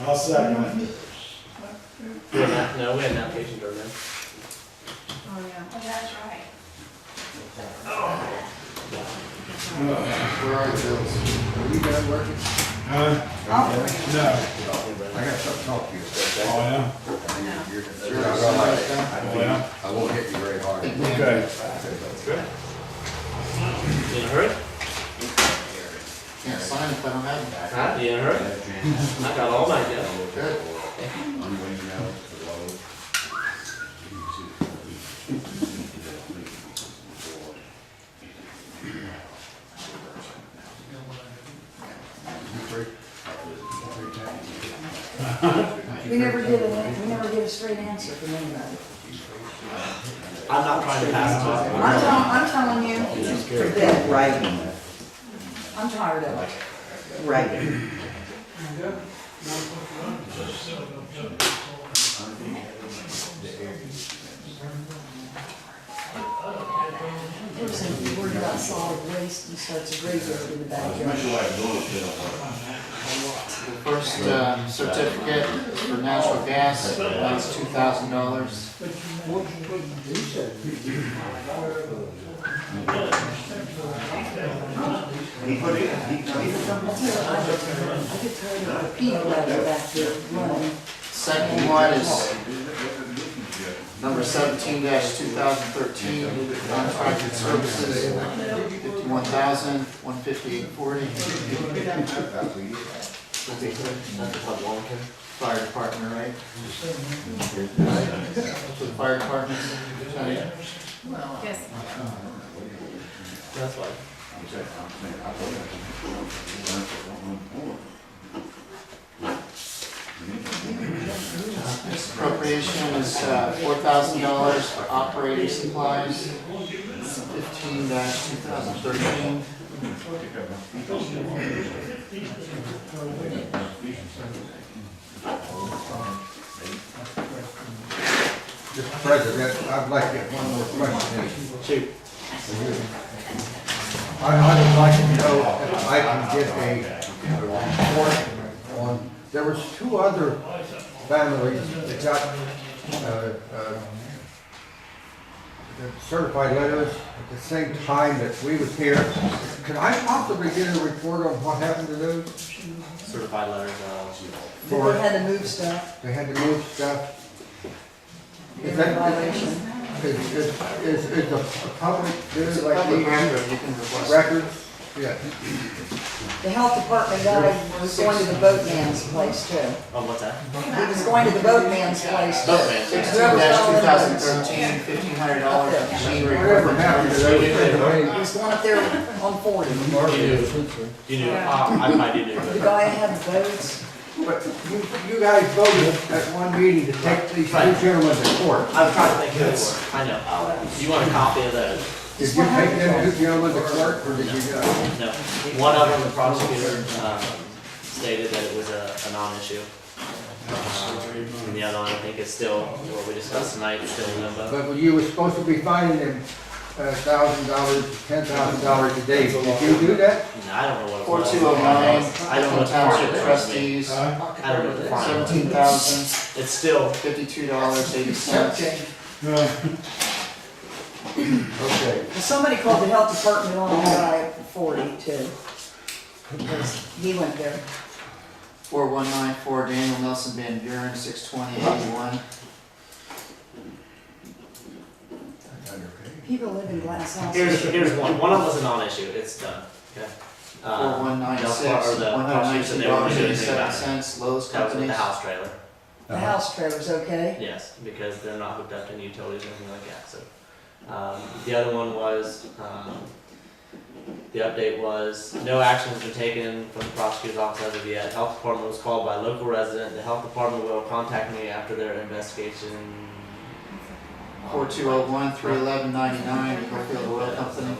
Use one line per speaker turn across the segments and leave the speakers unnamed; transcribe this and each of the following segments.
I'll second it.
We had not, no, we had an application turned down.
Oh, yeah.
Oh, that's right.
Where are the bills? Are you guys working?
Huh?
I'll bring it.
No.
I got something to talk to you about.
Oh, yeah?
You're- you're- you're not gonna like it. I
Oh,
don't-
yeah?
I won't hit you very hard.
Okay.
You in a hurry?
Can't sign if I don't have that.
Huh? You in a hurry? I got all mine yet.
Good. I'm waiting out for low.
We never get a, we never get a straight answer from anybody.
I'm not trying to pass it off.
I'm telling, I'm telling you, just forget it.
Writing,
I'm tired of it.
writing.
Person who's worried about solid waste and starts a graveyard in the backyard.
The first uh, certificate for natural gas, that was two thousand dollars.
I could tell you the peanut butter back there running.
Second one is number seventeen two thousand thirteen, contracted services, fifty-one thousand, one fifty-eight forty.
That's a lot long, Ken.
Fire department, right? For the fire department, Tony?
Yes.
That's why.
This appropriation is uh, four thousand dollars for operating supplies, fifteen two thousand thirteen.
Mr. President, I'd like to get one more question.
Shoot.
I, I would like to know if I can get a report on, there was two other families that got, uh, uh, the certified letters at the same time that we was here. Could I possibly get a report on what happened to those?
Certified letters, uh,
They had to move stuff,
They had to move stuff.
they
Is
were in
that,
violation.
is, is, is is the public,
It's
do
a
like
public
the
record, you can request.
records? Yeah.
The health department guy was going to the boatman's place too.
oh, what's that?
He was going to the boatman's place. too.
Sixteen two thousand thirteen, fifteen hundred dollars for machine
Whatever
repair.
happened to those, they
He was going up there on forty.
You knew, you knew, uh, I might do,
The
but
guy had boats.
But you, you guys voted at one meeting to take these two gentlemen to court.
I was trying to think who it was. I know. You want a copy of those?
Did you take them two gentlemen to court, or did you uh, not?
No. One of them, the prosecutor, um, stated that it was a, a non-issue. Um, And the other one, I think is still, what we discussed tonight, is still in limbo.
But you were supposed to be fining them a thousand dollars, ten thousand dollars a day. Did you do that?
And I don't know what it
Four
was.
two oh nine,
I don't know
Franklin
what the part of
Township
it
trustees,
Huh?
I don't know what the part of it
seventeen thousand,
was. It's still,
fifty-two dollars, eighty cents.
Uh,
Okay.
Well, somebody called the health department on the guy at forty too. Because He went there.
Four one nine four, Daniel Nelson Van Buren, six twenty, eighty-one.
People live in glass
here's,
houses.
here's one. One of them was a non-issue. It's done. Okay. Um,
Four one nine
Del
six,
Far- or the
one hundred
prosecutor said
nineteen
they weren't
dollars,
doing anything
eighty-seven
about it.
cents, Lowe's
That was with the
Companies.
house trailer.
The house trailer's okay.
Yes, because they're not hooked up to any utilities or anything like that, so. Um, the other one was, um, the update was, no action has been taken from the prosecutor's office as of yet. Health department was called by a local resident. The health department will contact me after their investigation.
Four two oh one, three eleven ninety-nine, Brookfield Oil Company.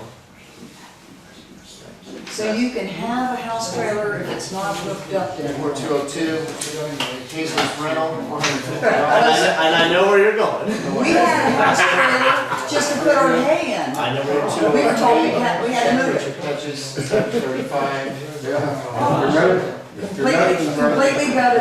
So you can have a house trailer if it's not hooked up to
Four two oh two, Hazel's Rental, four hundred fifty
And I,
dollars.
kn- and I know where you're going.
We had a house trailer just to put our hay in.
I know where you're
We
going.
were told we had, we had to move it.
Touches seven thirty-five.
Yeah. Remember?
Completely, completely gutted